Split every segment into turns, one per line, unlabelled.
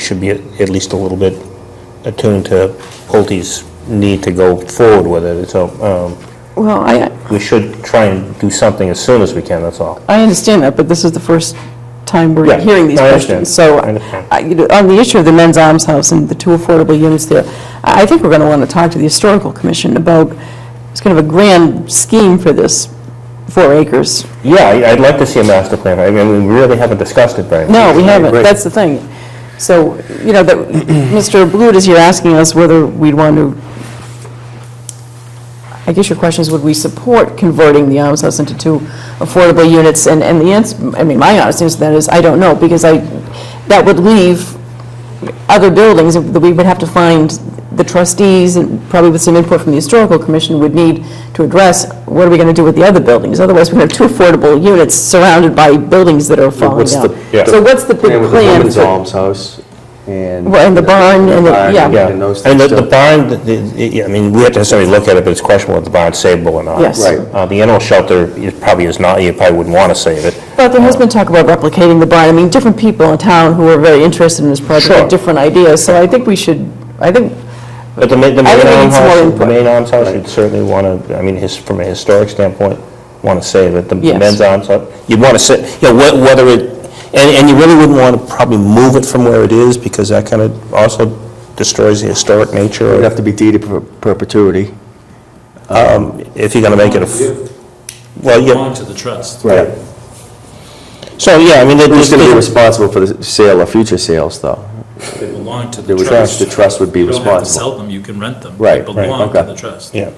should be at least a little bit attuned to Pulte's need to go forward with it, so um,
Well, I,
we should try and do something as soon as we can, that's all.
I understand that, but this is the first time
Yeah,
we're hearing these
I understand.
questions. So,
I understand.
I- you know, on the issue of the men's arms house and the two affordable units there, I I think we're going to want to talk to the Historical Commission about, it's kind of a grand scheme for this, four acres.
Yeah, I- I'd like to see a master plan, I mean, we really haven't discussed it very much.
No, we haven't,
Right.
that's the thing. So, you know, that, Mr. Blute is here asking us whether we'd want to, I guess your question is, would we support converting the Alms House into two affordable units? And, and the answer, I mean, my honest answer to that is, I don't know, because I, that would leave other buildings that we would have to find, the trustees, and probably with some input from the historical commission, would need to address, what are we going to do with the other buildings? Otherwise, we're going to have two affordable units surrounded by buildings that are falling
What's the-
down.
yeah.
So what's the big
And with the
plan?
women's
for-
almshouse and.
Well, and the barn and the-
barn
yeah.
Yeah,
And those
and
things.
the the
so-
barn, the- the- yeah, I mean, we have to necessarily look at it, but it's questionable if the barn's savable or not.
Yes.
Right.
Uh, The animal shelter is probably is not, you probably wouldn't want to save it.
But there has been talk about replicating the barn. I mean, different people in town who are very interested in this project
Sure.
have different ideas, so I think we should, I think,
But the main, the
I
main
think we need some more
almshouse, the
input.
main almshouse, you'd certainly want to, I mean, his, from a historic standpoint, want to save it. The the
Yes.
men's almshouse, you'd want to sit, you know, whe- whether it, and, and you really wouldn't want to probably move it from where it is because that kind of also destroys the historic nature
It'd
of-
have to be deeded per- perpetuity.
if you're going to make it a, f- well, yeah,
belong to the trust.
Right.
so, yeah, I mean, it-
Who's
it's
going to be responsible for the sale or future sales, though?
They belong to
They
the
would-
trust.
the trust would be
You don't have to
responsible.
sell them, you can rent them.
Right,
They
right,
belong to
okay.
the trust.
yeah.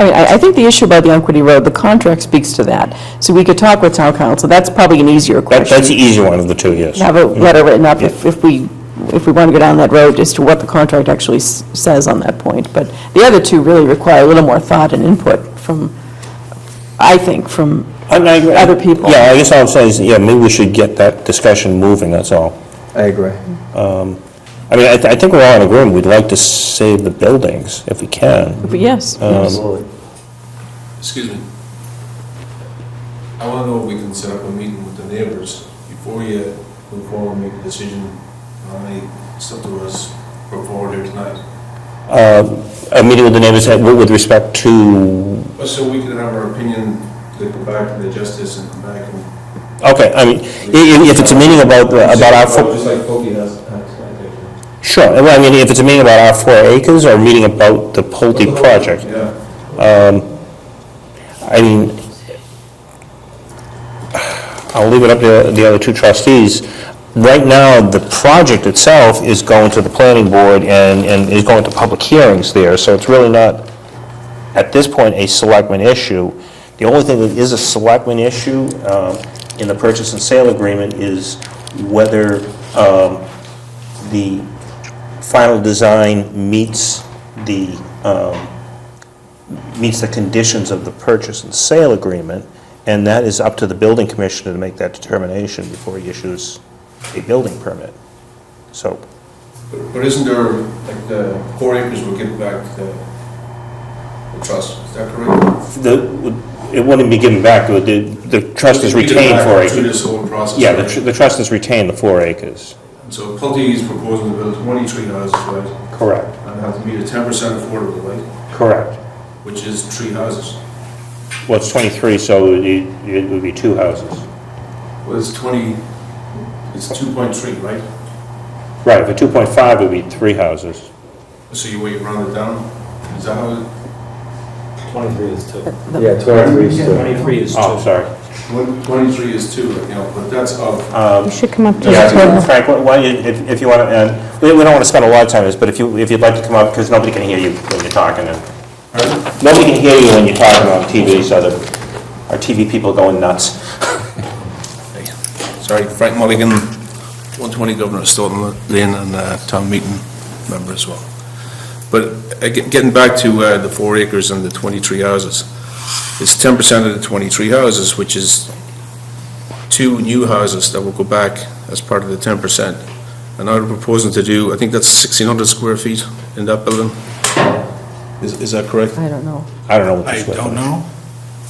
I mean, I I think the issue about the Unquity Road, the contract speaks to that. So we could talk with town council, that's probably an easier question.
That- That's the easy one of the two, yes.
have a letter written up if if we, if we want to go down that road as to what the contract actually s- says on that point. But the other two really require a little more thought and input from, I think, from
And I-
other people.
Yeah, I guess all I'm saying is, yeah, maybe we should get that discussion moving, that's all.
I agree.
I mean, I, th- I think we're all in agreement, we'd like to save the buildings if we can.
But yes, yes.
Um,
Excuse me. I want to know if we can set up a meeting with the neighbors before you move forward and make a decision on any stuff that was brought forward here tonight.
A meeting with the neighbors uh, with with respect to,
But so we can have our opinion, they come back to the justice and come back and.
okay, I mean, i- i- if it's a meeting about, uh, about our, four-
Just like Kobe has, has, I think.
sure, well, I mean, if it's a meeting about our four acres or a meeting about the Pulte project,
Yeah.
I mean, I'll leave it up to the other two trustees. Right now, the project itself is going to the planning board and, and is going to public hearings there, so it's really not, at this point, a selectman issue. The only thing that is a selectman issue um, in the purchase and sale agreement is whether um, the final design meets the um, meets the conditions of the purchase and sale agreement, and that is up to the building commissioner to make that determination before he issues a building permit. So,
But but isn't there, like, the four acres will give back to the the trust, is that correct?
the, it wouldn't be given back, the, the trust is
We did
retained
back
four
Through
acres.
this whole process.
Yeah, the,
right?
tr- the trust is retained the four acres.
So Pulte is proposing to build 23 houses, right?
Correct,
And have to meet a 10% affordable, right?
correct.
Which is three houses.
Well, it's 23, so it, it would be two houses.
Well, it's 20, it's 2.3, right?
Right, if a 2.5 would be three houses.
So you wait, round it down? Is that how, it-
23 is two.
Yeah, 23 is
23 is
Oh, sorry.
one- 23 is two right now, but that's of,
You should come up to the
Yeah,
table.
Frank, why- why, you- if if you want to, we we don't want to spend a lot of time on this, but if you, if you'd like to come up, because nobody can hear you when you're talking, and nobody can hear you when you're talking on TV, so the, our TV people are going nuts.
sorry, Frank Mulligan, 120 Governor Stoughton Lane and uh, town meeting member as well. But uh, get- getting back to uh, the four acres and the 23 houses, it's 10% of the 23 houses, which is two new houses that will go back as part of the 10%. And now they're proposing to do, I think that's 1,600 square feet in that building. Is is that correct?
I don't know.
I don't know what
I
this was.
don't know.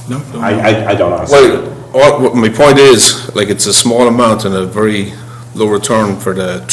No, don't
I,
know.
I- I don't honestly.
uh, Well, all- what my point is, like, it's a small amount and a very low return for the